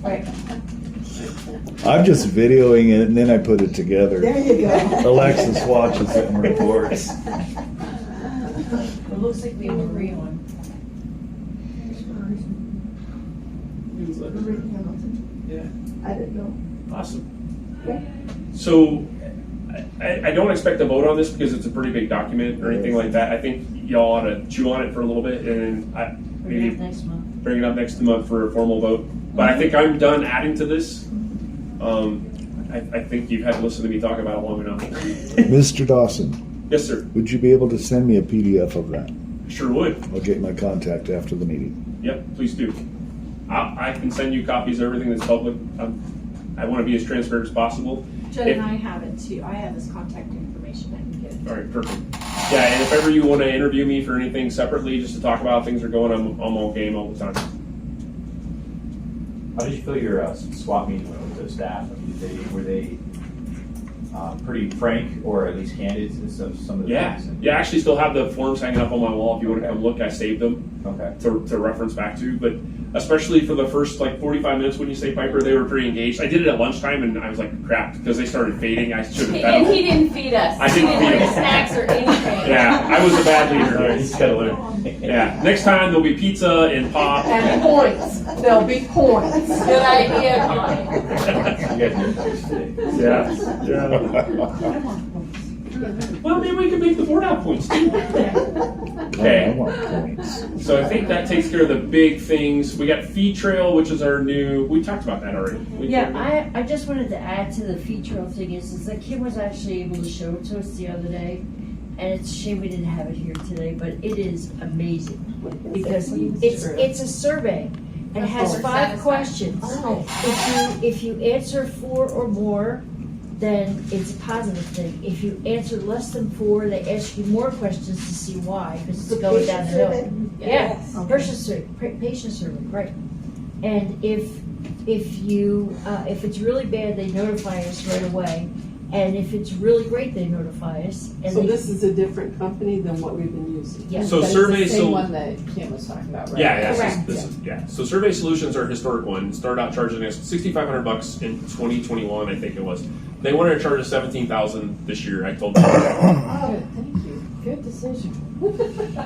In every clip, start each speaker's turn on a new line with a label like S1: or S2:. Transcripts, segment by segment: S1: Right.
S2: I'm just videoing it and then I put it
S3: There
S2: together.
S3: you go.
S2: Alexis watches it and reports.
S1: It looks like we agree on.
S4: Newsletter. Yeah,
S3: I didn't know.
S4: awesome.
S3: Okay.
S4: So, I, I don't expect a vote on this because it's a pretty big document or anything like that. I think y'all ought to chew on it for a little bit and I,
S1: We
S4: maybe
S1: have next month.
S4: bring it up next month for a formal vote. But I think I'm done adding to this. Um, I, I think you've had to listen to me talk about it long enough.
S2: Mr. Dawson,
S4: Yes, sir,
S2: would you be able to send me a PDF of that?
S4: sure would.
S2: I'll get my contact after the meeting.
S4: Yep, please do. I, I can send you copies of everything that's public. Um, I want to be as transparent as possible.
S1: Judd and I have it too. I have his contact information. I can get it.
S4: All right, perfect. Yeah, and if ever you want to interview me for anything separately, just to talk about how things are going, I'm, I'm all game all the time.
S5: How did you feel your uh, swap meeting went with the staff? I mean, did they, were they uh, pretty frank or at least candid in some, some of the
S4: Yeah,
S5: things?
S4: yeah. I actually still have the forms hanging up on my wall. If you want to come look, I saved them
S5: Okay.
S4: to, to reference back to. But especially for the first like 45 minutes when you say Piper, they were pretty engaged. I did it at lunchtime, and I was like, crap, because they started fading. I should have
S6: And he
S4: fed them.
S6: didn't feed us.
S4: I didn't
S6: He
S4: feed
S6: bring
S4: him.
S6: snacks or anything.
S4: Yeah, I was a bad leader.
S5: He's got to learn.
S4: Yeah, next time there'll be pizza and pop.
S1: And points. There'll be points.
S6: Good idea, Connie.
S5: You guys are nervous today.
S4: Yeah, yeah. Well, maybe we can make the board out points too.
S2: I
S4: Okay.
S2: want points.
S4: So I think that takes care of the big things. We got Fee Trail, which is our new. We talked about that already. We-
S7: Yeah, I, I just wanted to add to the feature thing is, is that Kim was actually able to show it to us the other day. And it's a shame we didn't have it here today, but it is amazing, because it's, it's a survey. and It has
S6: We're
S7: five
S6: satisfied.
S7: questions. If you, if you answer four or more, then it's a positive thing. If you answer less than four, they ask you more questions to see why, because it's going down the hill. Yeah, Oh,
S3: Oh.
S7: patient survey, pa- patient survey, right. And if, if you, uh, if it's really bad, they notify us right away. And if it's really great, they notify us. And
S8: So
S7: they-
S8: this is a different company than what we've been using?
S7: Yeah.
S4: So
S8: But it's
S4: Survey
S8: the same
S4: Sol-
S8: one that Kim was talking about, right?
S4: Yeah, yeah,
S6: Correct.
S4: this, is- this is, yeah. So Survey Solutions are a historic one. Started out charging us sixty-five hundred bucks in twenty twenty-one, I think it was. They wanted to charge us seventeen thousand this year. I told them. yeah,
S8: Oh, thank you. Good decision.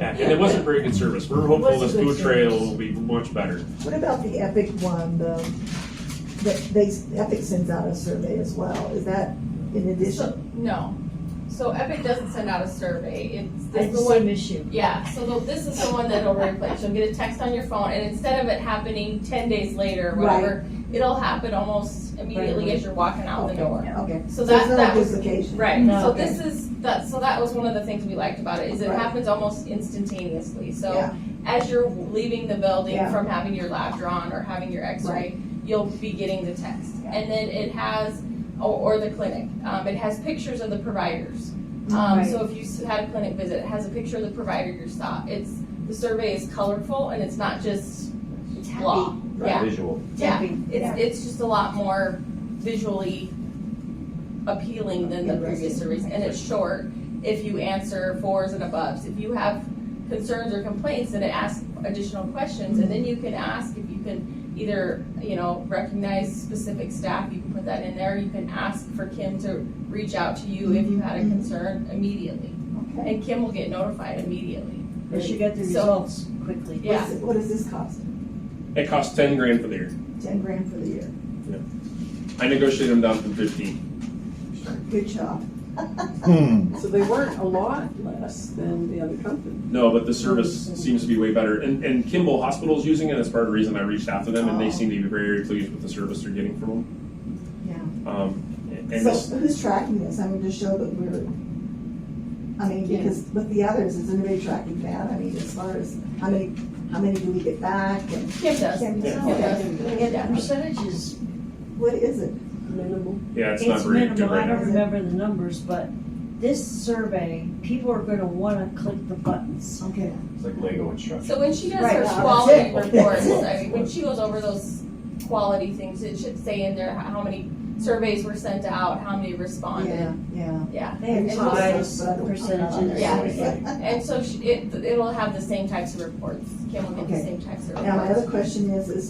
S4: and it wasn't very good service. We're hopeful this Food Trail will be much better.
S3: What about the Epic one, the, that they, Epic sends out a survey as well, is that in addition?
S9: So, no. So Epic doesn't send out a survey. It's this is
S7: It's
S9: the
S7: the
S9: one.
S7: same issue.
S9: Yeah. So the, this is the one that'll replace. You'll get a text on your phone, and instead of it happening ten days later or whatever, it'll happen almost immediately as you're walking out the door.
S3: Okay,
S9: So
S3: so it's
S9: that
S3: not
S9: that
S3: a
S9: was
S3: duplication?
S9: right.
S7: No.
S9: So this is that. So that was one of the things we liked about it is it
S3: Right.
S9: happens almost instantaneously. So
S3: Yeah.
S9: as you're leaving the building
S3: Yeah.
S9: from having your lab drawn or having your X-ray,
S3: Right.
S9: you'll be getting the text,
S3: Yeah.
S9: and then it has or, or the clinic. Um, it has pictures of the providers. Um,
S3: Mm-hmm.
S9: So if you s- had a clinic visit, it has a picture of the provider you saw. It's the survey is colorful and it's not just
S7: It's
S9: blah.
S7: happy.
S5: Right, Visual.
S9: Yeah,
S7: Happy.
S9: it's, it's just a lot more visually appealing than the previous surveys, and it's short if you answer fours and above. If you have concerns or complaints, then it asks additional questions, and then you can ask if you can either, you know, recognize specific staff, you can put that in there, you can ask for Kim to reach out to you if you had a concern immediately,
S3: Okay.
S9: and Kim will get notified immediately.
S7: But she got the
S9: So-
S7: results quickly.
S9: Yeah.
S3: What is- What does this cost?
S4: It costs ten grand for the year.
S3: Ten grand for the year,
S4: I negotiated them down from fifteen.
S3: good job.
S2: Hmm.
S8: So they weren't a lot less than the other company.
S4: No, but the service seems to be way better. And, and Kimball Hospital's using it. That's part of the reason I reached out to them, and they
S3: Oh.
S4: seem to be very pleased with the service they're getting from them. Yeah. Um, and
S3: So
S4: this,
S3: who's tracking this? I mean, to show that we're, I mean,
S8: Yeah.
S3: because with the others, is anybody tracking that? I mean, as far as, how many, how many do we get back and?
S9: Kim does.
S3: Kim does.
S9: Kim does.
S7: And the percentages,
S3: What is it?
S8: Minimal.
S4: yeah, it's, not
S7: it's
S4: very good
S7: minimal,
S4: right
S7: I
S4: now.
S7: don't remember the numbers, but this survey, people are gonna wanna click the buttons.
S3: Okay.
S5: It's like Lego instruction.
S9: So when she does
S7: Right.
S9: her
S3: Wow.
S9: quality
S3: That's it.
S9: reports, I mean, when she goes over those quality things, it should say in there how how many surveys were sent out, how many responded.
S3: Yeah, yeah.
S9: Yeah.
S7: They have
S3: It's
S7: ties,
S3: awesome.
S7: percentages.
S9: Yeah.
S5: Yeah.
S9: And so she, it, it'll have the same types of reports. Kim will get the
S3: Okay.
S9: same types of reports.
S3: Now, my other question is, is